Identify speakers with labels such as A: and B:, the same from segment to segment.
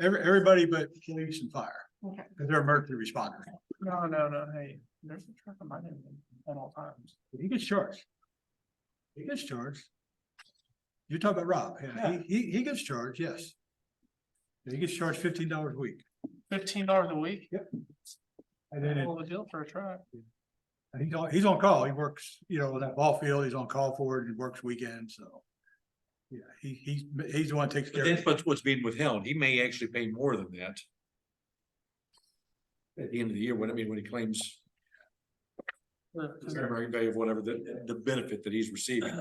A: Every, everybody but police and fire.
B: Okay.
A: Cause they're emergency responders.
B: No, no, no, hey, there's a truck on my name at all times.
A: He gets charged. He gets charged. You're talking about Rob. Yeah, he, he, he gets charged, yes. He gets charged fifteen dollars a week.
B: Fifteen dollars a week,
A: And then it-
B: all the deal for a truck.
A: and he's on, he's on call. He works, you know, that ball field, he's on call for it, he works weekends, so. Yeah, he, he's, he's the one that takes care
C: But
A: of
C: that's
A: it.
C: what's, what's being withheld. He may actually pay more than that. At the end of the year, when I mean, when he claims the fair market value of whatever the, the benefit that he's receiving.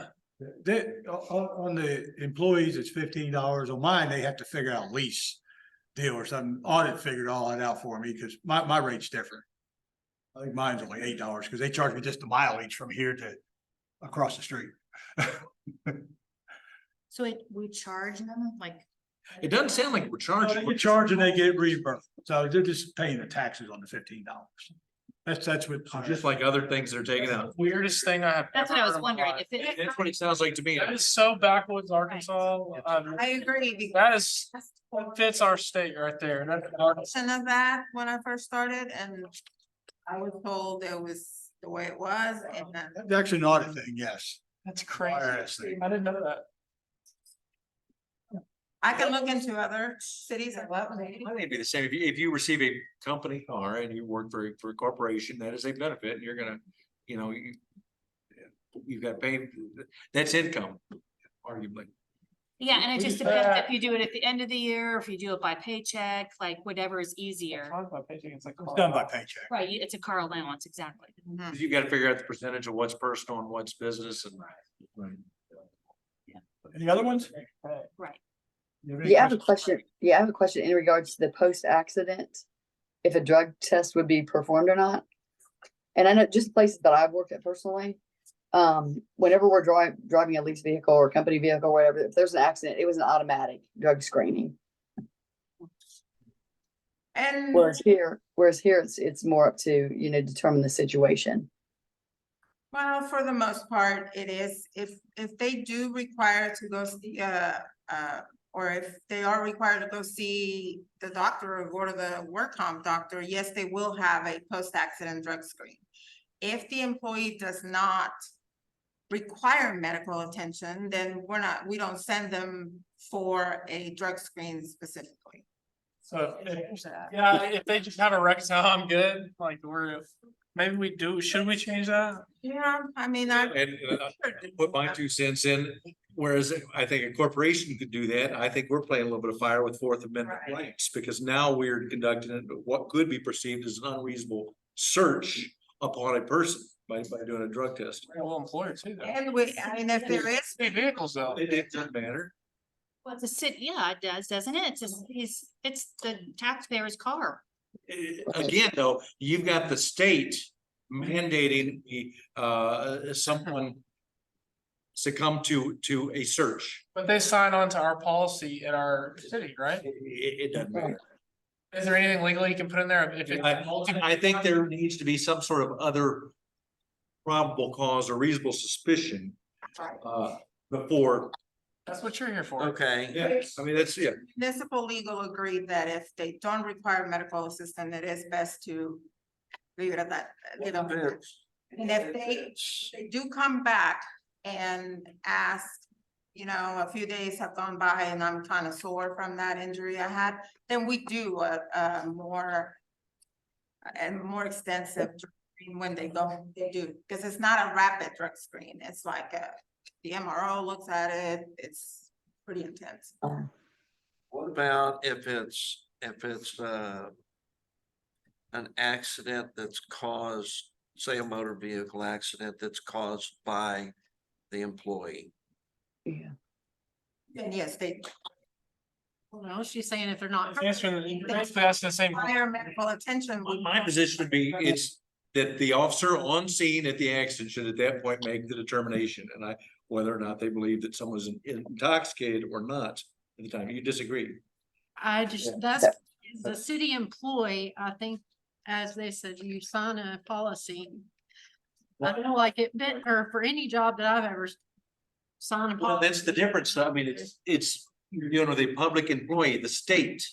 A: They- o- o- on the employees, it's fifteen dollars. On mine, they have to figure out lease deal or something. Audit figured all that out for me because my, my rate's different. I think mine's only eight dollars because they charge me just the mileage from here to across the street.
D: So it, we charge them like,
C: It doesn't sound like we're
A: They
C: charging.
A: get charged and they get reimbursed. So they're just paying the taxes on the fifteen dollars. That's, that's what.
C: So Just like other things they're taking out.
B: Weirdest thing I have.
D: that's what
B: ever
D: I
B: heard
D: was
B: in my
D: wondering
B: life.
D: if it.
C: That's what it sounds like to me.
B: That is so backwoods Arkansas. um,
E: I agree, because
B: That is, that fits our state right there. That's Arkansas.
E: of that when I first started and I was told it was the way it was and then
A: That's actually an audit thing, yes.
B: That's
A: IRS
B: crazy.
A: thing.
B: I didn't know that.
E: I can look into other cities. I love it.
C: I think it'd be the same. If you, if you receive a company car and you work for, for a corporation, that is a benefit and you're gonna, you know, you. You've got to pay, that's income, arguably.
D: Yeah, and it just
B: Yeah.
D: depends if you do it at the end of the year, or if you do it by paycheck, like whatever is easier.
B: Sometimes my paycheck is like-
A: It's done by paycheck.
D: Right, you- it's a car allowance, exactly.
E: Mhm.
C: You gotta figure out the percentage of what's personal and what's business and. Right.
A: Any other ones?
B: Right.
A: You have any
F: Yeah, I have a
A: questions?
F: question. Yeah, I have a question in regards to the post-accident, if a drug test would be performed or not. And I know just places that I've worked at personally, um, whenever we're driving, driving a lease vehicle or company vehicle, or whatever, if there's an accident, it was an automatic drug screening.
E: And
F: Whereas here, whereas here, it's, it's more up to, you know, determine the situation.
E: well, for the most part, it is, if, if they do require to go see, uh, uh, or if they are required to go see the doctor or go to the work comp doctor, yes, they will have a post-accident drug screen. If the employee does not require medical attention, then we're not, we don't send them for a drug screen specifically.
B: So if- Yeah, if they just have a wreck, so I'm good, like we're, maybe we do, should we change that?
E: Yeah, I mean, I.
C: And uh, put my two cents in, whereas I think a corporation could do that, I think we're playing a little bit of fire with Fourth Amendment
E: Right.
C: rights. Because now we're conducting it, what could be perceived as an unreasonable search upon a person by, by doing a drug test.
B: We're a little employer too, though.
E: And we, I mean, if there is,
B: Hey, vehicles though.
C: It, it doesn't matter.
D: Well, it's a city, yeah, it does, doesn't it? It's, a- it's, it's the taxpayer's car.
C: Eh, Again, though, you've got the state mandating the, uh, someone succumb to, to a search.
B: But they sign on to our policy in our city, right?
C: It, it doesn't matter.
B: Is there anything legal you can put in there? if it's-
C: I, I think there needs to be some sort of other probable cause or reasonable suspicion, uh, before.
B: That's what you're here for.
C: Okay. Yeah, I mean, that's, yeah,
E: municipal legal agreed that if they don't require medical assistance, it is best to leave it at that, you know. And if they, they do come back and ask, you know, a few days have gone by and I'm kind of sore from that injury I had, then we do a, a more and more extensive drug screen when they go, they do, because it's not a rapid drug screen. It's like a, the MRO looks at it, it's pretty intense.
G: What about if it's, if it's, uh, an accident that's caused, say a motor vehicle accident that's caused by the employee?
F: Yeah.
E: And yes, they
D: Well, no, she's saying if they're not.
B: It's Answering, the- you're basically asking the same.
E: require medical attention.
C: my, my position would be, it's that the officer on scene at the accident should at that point make the determination, and I, whether or not they believe that someone's intoxicated or not at the time, you disagree.
H: I just, that's, as a city employee, I think, as they said, you sign a policy. I don't know, like it, been- or for any job that I've ever s- signed a
C: Well,
H: policy.
C: that's the difference, I mean, it's, it's, you're dealing with a public employee, the state